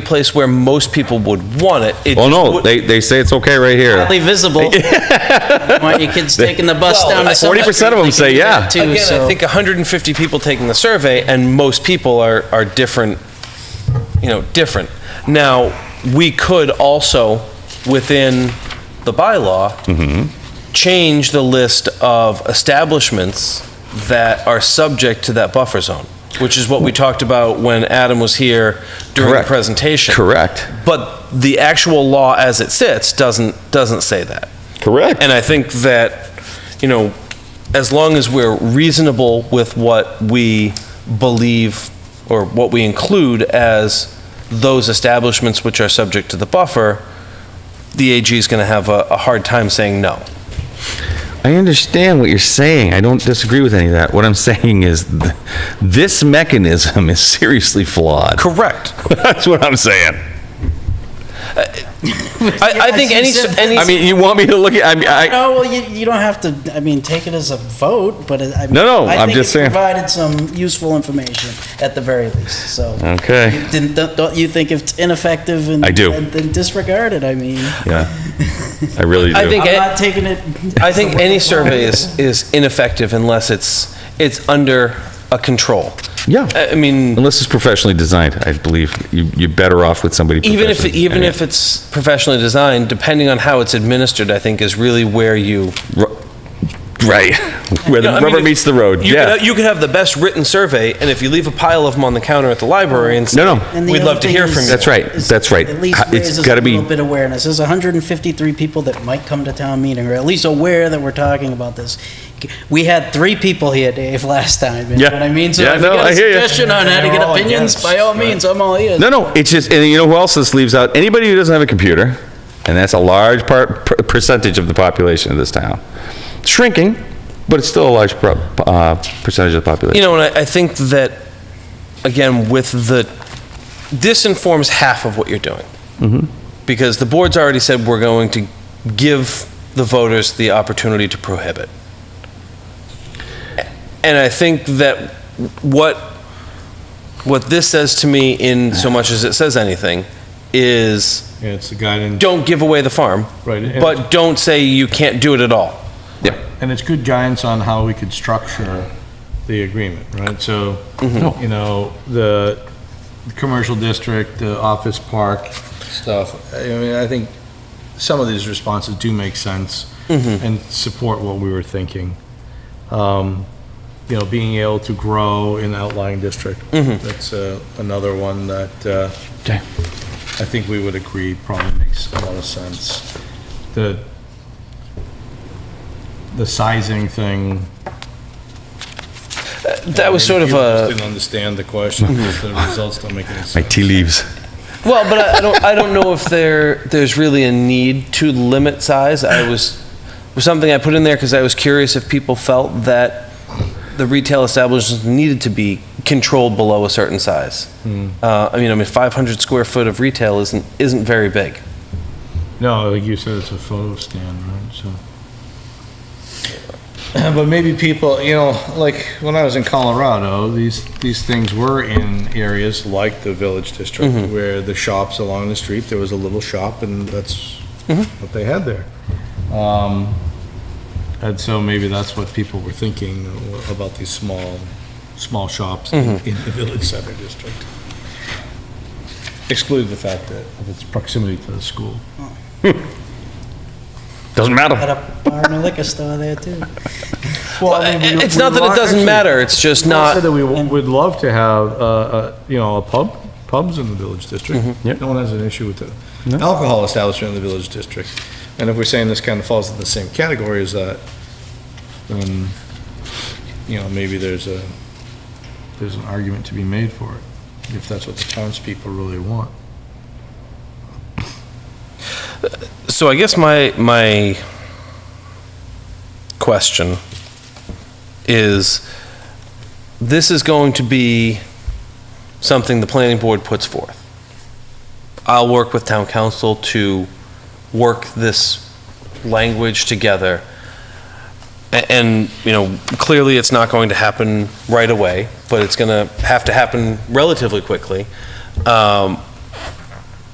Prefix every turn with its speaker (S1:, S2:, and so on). S1: place where most people would want it. It
S2: Well,
S1: just
S2: Oh, no,
S1: would-
S2: they, they say it's okay right here.
S3: Only visible. Why your kids taking the bus
S1: Well,
S3: down to Summer
S2: 40%
S3: Street,
S2: of 'em
S3: they
S2: say
S3: can do that
S2: yeah.
S3: too,
S1: Again, I
S3: so-
S1: think 150 people taking the survey, and most people are, are different, you know, different. Now, we could also, within the bylaw,
S2: Mm-hmm.
S1: change the list of establishments that are subject to that buffer zone, which is what we talked about when Adam was here during the
S2: Correct.
S1: presentation.
S2: Correct.
S1: But the actual law as it sits doesn't, doesn't say that.
S2: Correct.
S1: And I think that, you know, as long as we're reasonable with what we believe or what we include as those establishments which are subject to the buffer, the AG is going to have a, a hard time saying no.
S2: I understand what you're saying. I don't disagree with any of that. What I'm saying is th- this mechanism is seriously flawed.
S1: Correct.
S2: That's what I'm saying.
S1: I, I think any, s- any.
S2: I mean, you want me to look at, I mean, I,
S4: No, well, you, you don't have to, I mean, take it as a vote, but it- I. mean,
S2: No, no,
S4: I
S2: I'm
S4: think
S2: just
S4: it
S2: saying.
S4: Provided some useful information at the very least, so.
S2: Okay.
S4: Didn't, don't- don't you think it's ineffective and?
S2: I do.
S4: and Then disregard it, I mean.
S2: yeah, I really do.
S1: I think-
S4: I'm not taking it.
S1: I think any survey is, is ineffective unless it's, it's under a control.
S2: Yeah.
S1: I I mean,
S2: Unless it's professionally designed, I believe you, you're better off with somebody.
S1: even if,
S2: professionally-
S1: even if it's professionally designed, depending on how it's administered, I think is really where you.
S2: Ru- Right, where the
S1: Yeah, I mean,
S2: rubber
S1: if-
S2: meets the road,
S1: You
S2: yeah.
S1: Could, you could have the best written survey, and if you leave a pile of them on the counter at the library and say,
S2: No, no.
S4: And the
S1: we'd
S4: other
S1: love to
S4: thing
S1: hear
S4: is-
S1: from you.
S2: That's right,
S4: is
S2: that's right.
S4: At least
S2: Ha- it's
S4: raises a
S2: gotta be-
S4: little bit of awareness. There's 153 people that might come to town meeting, or at least aware that we're talking about this. We had three people here, Dave, last time. You
S2: Yeah.
S4: know what I mean?
S2: Yeah,
S4: if
S2: no,
S4: you got a
S2: I hear ya.
S4: suggestion on how to
S1: And they're
S4: get
S1: all
S4: opinions,
S1: against,
S4: by all means, I'm all ears.
S2: No, no, it's just, and you know who else this leaves out? Anybody who doesn't have a computer, and that's a large part, per- percentage of the population of this town. Shrinking, but it's still a large pro- uh, percentage of the
S1: You
S2: population.
S1: know, and I, I think that, again, with the, this informs half of what you're doing.
S2: Mm-hmm.
S1: Because the board's already said we're going to give the voters the opportunity to prohibit. And I think that what, what this says to me, in so much as it says anything, is
S5: Yeah, it's the guidance,
S1: don't give away the farm,
S5: Right, and-
S1: but don't say you can't do it at all.
S5: and it's good guidance on how we could structure the agreement, right? So, you know, the commercial district, the office park stuff, I mean, I think some of these responses do make sense and support what we were thinking. Um, You know, being able to grow in outlying district, that's uh, another one that uh, I think we would agree probably makes a lot of sense. The the sizing thing.
S1: That was sort of a,
S5: Didn't understand the question, the results don't make any
S2: My
S5: sense.
S2: tea leaves.
S1: well, but I I don't, I don't know if there, there's really a need to limit size. I was, was something I put in there because I was curious if people felt that the retail establishments needed to be controlled below a certain size.
S5: Hmm.
S1: Uh, I mean, I mean, 500 square foot of retail isn't, isn't very big.
S5: No, like you said, it's a photo stand, right, so. But maybe people, you know, like, when I was in Colorado, these, these things were in areas like the Village District, where the shops along the street, there was a little shop, and that's what they had there. Um, And so maybe that's what people were thinking about these small, small shops in in the Village Center District. Exclude the fact that of its proximity to the school.
S2: Doesn't
S4: Had
S2: matter.
S4: a bar and a liquor store there too.
S5: Well, I mean, we-
S1: It's
S5: we
S1: not that
S5: want-
S1: it doesn't
S5: actually,
S1: matter, it's just
S5: we
S1: not.
S5: said that we w- would love to have, uh, uh, you know, a pub, pubs in the village district.
S2: Yep.
S5: No one has an issue with the alcohol establishment in the village district. And if we're saying this kind of falls in the same category as that, then, you know, maybe there's a, there's an argument to be made for it, if that's what the townspeople really want.
S1: So I guess my my question is this is going to be something the planning board puts forth. I'll work with town council to work this language together. A- And, you know, clearly it's not going to happen right away, but it's going to have to happen relatively quickly. Um,